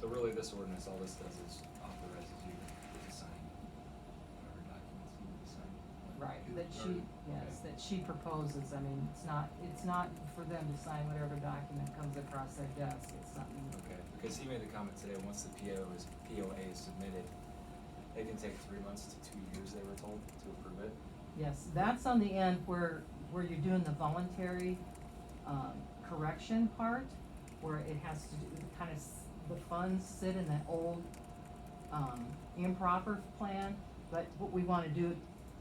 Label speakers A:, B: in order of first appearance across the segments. A: So really, this ordinance, all this does is authorizes you to sign whatever documents you need to sign.
B: Right, that
A: Or-
B: she, yes,
A: okay.
B: that she proposes, I mean, it's not, it's not for them to sign whatever document comes across their desk, it's something.
A: Okay, because he made the comment today, once the PO is, POA is submitted, it can take three months to two years, they were told, to approve it.
B: Yes, that's on the end where, where you're doing the voluntary, um, correction part, where it has to do, kind of, the funds sit in that old, um, improper plan, but what we wanna do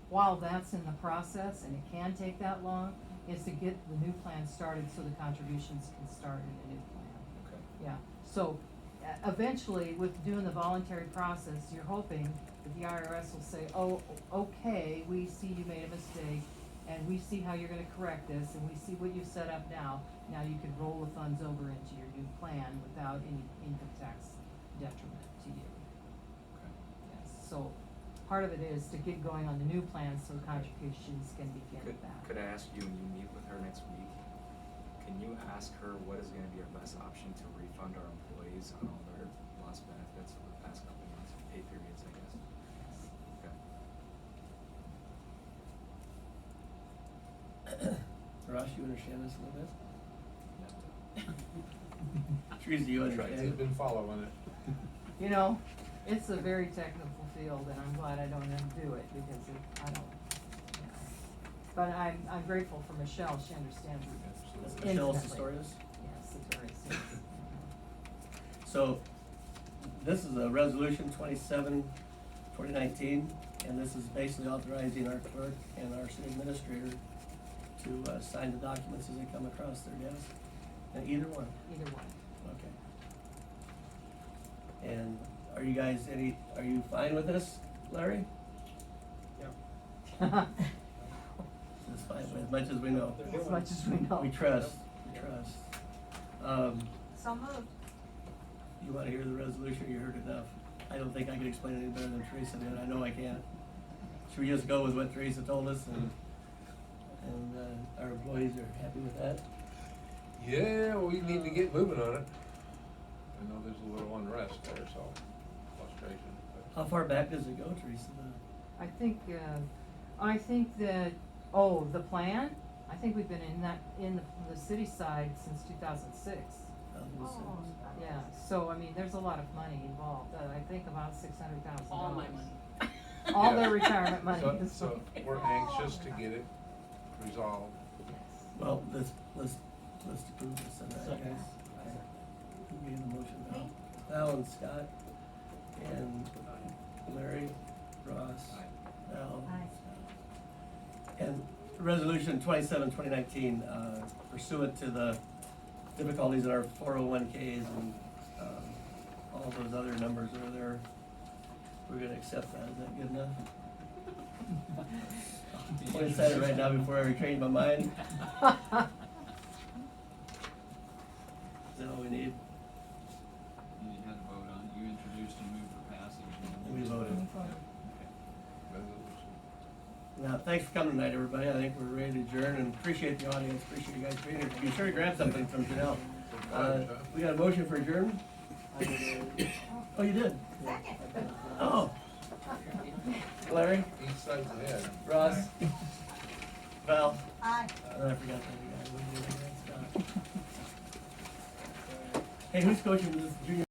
B: while that's in the process, and it can take that long, is to get the new plan started so the contributions can start in the new plan.
A: Okay.
B: Yeah, so uh, eventually with doing the voluntary process, you're hoping that the IRS will say, oh, okay, we see you made a mistake and we see how you're gonna correct this and we see what you've set up now. Now you can roll the funds over into your new plan without any income tax detriment to you.
A: Okay.
B: Yes, so part of it is to get going on the new plan so contributions can begin
A: Could,
B: at that.
A: could I ask you, when you meet with her next week, can you ask her what is gonna be our best option to refund our employees on all their lost benefits over the past couple months, pay periods, I guess?
B: Yes.
A: Okay.
C: Ross, you understand this a little bit?
A: Yeah.
C: Teresa, you
D: That's right. I've
C: understand?
D: been following it.
B: You know, it's a very technical field and I'm glad I don't have to do it because it, I don't, you know. But I'm, I'm grateful for Michelle, she understands it,
C: Does
D: Absolutely.
C: Michelle
B: Instantly.
C: Pistorius?
B: yes, it's very serious.
C: So, this is a resolution 27, 2019, and this is basically authorizing our clerk and our city administrator to, uh, sign the documents as they come across their desk, and either one,
B: Either one,
C: okay. And are you guys any, are you fine with this, Larry? It's fine, as much as we know,
B: as much as we know.
C: we trust, we trust. Um,
E: So moved.
C: You wanna hear the resolution, you heard enough. I don't think I can explain it any better than Teresa did, I know I can't. Should we just go with what Teresa told us and, and, uh, our employees are happy with that?
D: Yeah, we need to get moving on it. I know there's a little unrest there, so frustration.
C: How
D: but-
C: far back does it go, Teresa? The-
B: I think, uh, I think that, oh, the plan, I think we've been in that, in the, the city side since two thousand six.
C: uh, this is-
E: Oh, that
B: Yeah,
E: was-
B: so I mean, there's a lot of money involved, uh, I think about six hundred thousand dollars.
F: all my money.
B: All
D: Yeah.
B: their retirement money
D: So-
B: is-
D: So, we're anxious to get it resolved.
B: Yes.
C: Well, let's, let's, let's approve this and that, guys. Who gave the motion
E: Me.
C: now? Val and Scott, and Larry, Ross.
A: Aye.
C: Now,
E: Aye.
C: And resolution 27, 2019, uh, pursuant to the difficulties in our four oh one Ks and, um, all those other numbers that are there, we're gonna accept that, is that good enough? I'll just say it right now before I retrain my mind, is that all we need?
G: You had a vote on, you introduced and moved for passage. and-
C: We voted.
D: Resolution.
C: Now, thanks for coming tonight, everybody, I think we're ready to adjourn, and appreciate the audience, appreciate you guys being here, be sure to grab something from Janelle. Uh, we got a motion for adjournment? Oh, you did?
E: Second.
C: Oh. Larry,
D: Each side of the head.
C: Ross, Val,
E: Aye.
C: and I forgot the other guy. Hey, who's coaching this junior?